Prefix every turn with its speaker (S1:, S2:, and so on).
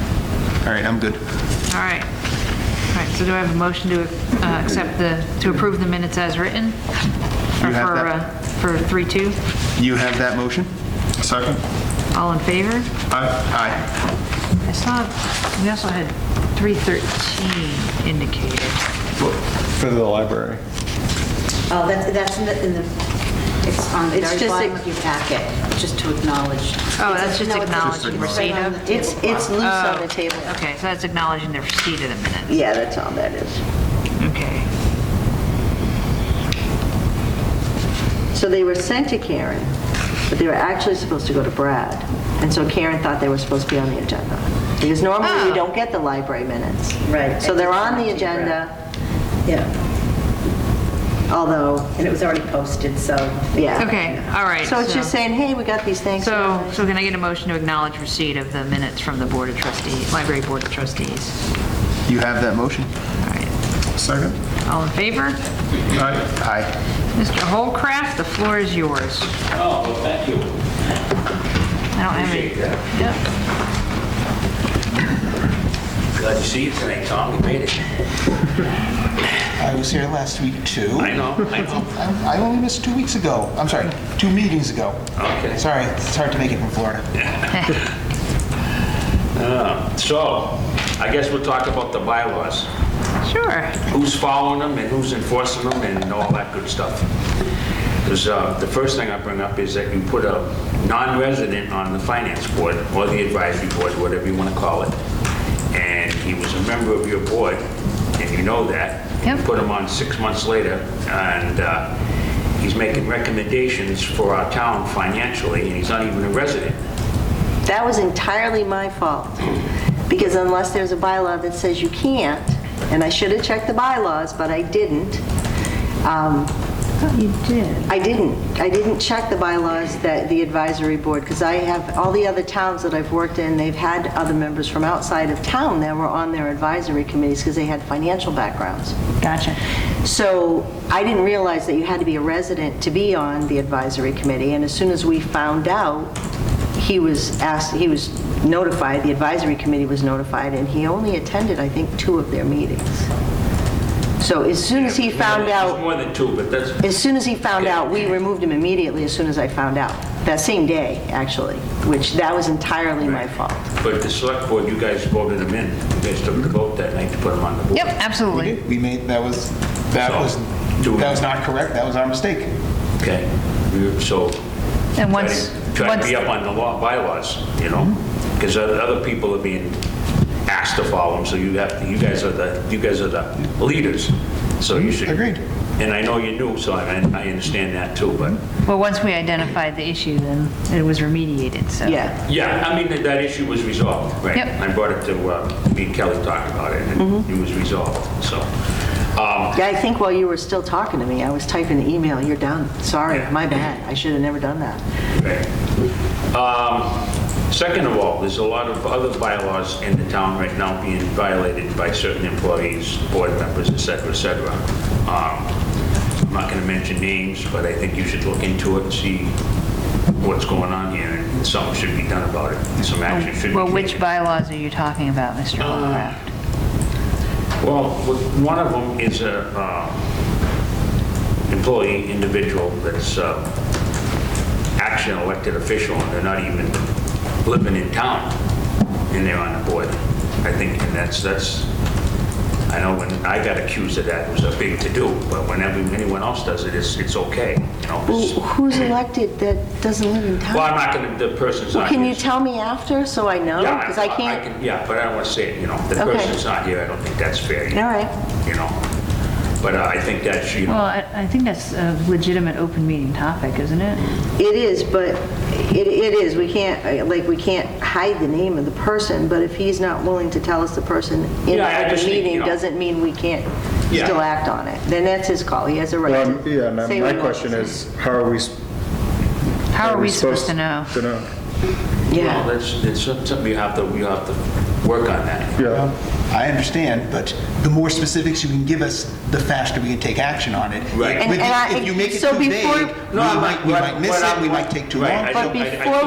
S1: All right, I'm good.
S2: All right. All right, so do I have a motion to uh, accept the, to approve the minutes as written? Or
S1: You have
S2: for,
S1: that?
S2: uh, For 3-2?
S1: You have that motion?
S3: Second?
S2: All in favor?
S3: Aye.
S1: Aye.
S2: I saw, we also had 313 indicated.
S4: For the library.
S5: Oh, that's, that's in the, in the, it's on the
S6: It's
S5: very
S6: just
S5: bottom
S6: a-
S5: of your packet, just to acknowledge.
S2: Oh,
S5: It's a-
S2: that's just
S5: no, it's a-
S2: acknowledging
S5: it's
S2: receipt
S5: right on
S2: of?
S5: the table.
S6: It's, it's loose
S2: Oh.
S6: on the table.
S2: Okay, so that's acknowledging the receipt of the minutes.
S6: Yeah, that's all that is.
S2: Okay.
S6: So they were sent to Karen, but they were actually supposed to go to Brad. And so Karen thought they were supposed to be on the agenda. Because normally
S2: Oh.
S6: you don't get the library minutes.
S5: Right.
S6: So they're on the
S5: It's on to Brad.
S6: agenda,
S5: Yeah,
S6: although,
S5: and it was already posted, so.
S6: yeah.
S2: Okay, all right.
S6: So it's just saying, hey, we got these things.
S2: So, so can I get a motion to acknowledge receipt of the minutes from the Board of Trustees, Library Board of Trustees?
S1: You have that motion?
S2: All right.
S3: Second?
S2: All in favor?
S3: Aye.
S1: Aye.
S2: Mr. Holcraft, the floor is yours.
S7: Oh, well, thank you.
S2: I don't have any.
S7: Appreciate that.
S2: Yep.
S7: Glad to see you tonight, Tom. You made it.
S1: I was here last week, too.
S7: I know, I know.
S1: I only missed two weeks ago. I'm sorry, two meetings ago.
S7: Okay.
S1: Sorry, it's hard to make it from Florida.
S7: So, I guess we'll talk about the bylaws.
S2: Sure.
S7: Who's following them and who's enforcing them and all that good stuff. Because the first thing I bring up is that you put a non-resident on the finance board, or the advisory board, whatever you want to call it. And he was a member of your board, and you know that.
S2: Yep.
S7: You Put him on six months later, and uh, he's making recommendations for our town financially, and he's not even a resident.
S6: That was entirely my fault, because unless there's a bylaw that says you can't, and I should have checked the bylaws, but I didn't. um,
S2: You did.
S6: I didn't, I didn't check the bylaws that the advisory board, because I have, all the other towns that I've worked in, they've had other members from outside of town that were on their advisory committees because they had financial backgrounds.
S2: Gotcha.
S6: So I didn't realize that you had to be a resident to be on the advisory committee, and as soon as we found out, he was asked, he was notified, the advisory committee was notified, and he only attended, I think, two of their meetings. So as soon as he found
S7: It's
S6: out,
S7: more than two, but that's,
S6: as soon as he found out, we removed him immediately as soon as I found out, that same day, actually, which that was entirely my fault.
S7: but the select board, you guys voted him in. You guys took the vote that night to put him on the board.
S2: Yep,
S1: We
S2: absolutely.
S1: did, we made, that was, that
S7: So,
S1: was,
S7: do we-
S1: that was not correct, that was our mistake.
S7: Okay, You- so.
S2: And
S7: try to-
S2: once-
S7: Try to
S2: once- Mm-hmm.
S7: be up on the law, bylaws, you know? Because other people are being asked to follow them, so you have, to- you guys are the, you guys are the leaders, so you should.
S1: Agreed.
S7: And I know you're new, so I, I understand that too, but,
S2: Well, once we identified the issue, then it was remediated, so.
S6: Yeah.
S7: yeah, I mean, that- that issue was resolved, right?
S2: Yep. Mm-hmm.
S7: I brought it to, uh, me and Kelly talked about it, and it was resolved, so. um,
S6: Yeah, I think while you were still talking to me, I was typing the email, you're done, sorry,
S7: Yeah.
S6: my bad, I should have never done that.
S7: Okay. Um, Second of all, there's a lot of other bylaws in the town right now being violated by certain employees, board members, et cetera, et cetera. Um, I'm not going to mention names, but I think you should look into it and see what's going on here, and something should be done about it, some action should be taken.
S2: Well, which bylaws are you talking about, Mr.
S7: Uh,
S2: Holcraft?
S7: Well, with- one of them is a uh, employee individual that's uh, actually an elected official, and they're not even living in town, and they're on the board. I think, and that's, that's, I know when I got accused of that, it was a big to-do, but whenever anyone else does it, it's, it's okay, you know?
S6: Who-
S7: it's-
S6: Who's elected that doesn't live in
S7: Well, I'm
S6: town?
S7: not gonna, the person's
S6: Well,
S7: not
S6: Can you
S7: here, so-
S6: tell me after, so I know?
S7: Yeah,
S6: Because I can't,
S7: can- Yeah, but I don't want to say it, you know, the
S6: Okay.
S7: person's not here, I don't think that's fair. you-
S6: All right.
S7: You know, but uh, I think that's, you
S2: Well,
S7: know,
S2: I I think that's a legitimate open meeting topic, isn't it?
S6: it is, but it it is, we can't, uh, like, we can't hide the name of the person, but if he's not willing to tell us the person in
S7: Yeah, I
S6: the
S7: just think, you
S6: meeting,
S7: know-
S6: doesn't mean we can't
S7: Yeah.
S6: still act on it. Then that's his call, he has a right
S4: Um,
S6: to
S4: Yeah,
S6: say
S4: and my
S6: what he
S4: question
S6: wants.
S4: is, how are we? s-
S2: How are we supposed to know?
S4: To know,
S7: well,
S6: Yeah,
S7: that's, it's something you have to, you have to work on that.
S4: yeah.
S1: I understand, but the more specifics you can give us, the faster we can take action on it.
S7: Right.
S6: And-
S1: If-
S6: and I-
S1: If you make it
S6: so
S1: too
S6: before-
S1: vague, we
S7: No, I'm
S1: might,
S7: not-
S1: we
S7: what-
S1: might miss
S7: what
S1: it,
S7: I'm-
S1: we might take too
S7: Right,
S1: long.
S7: I
S6: but
S7: don't- I- I
S6: before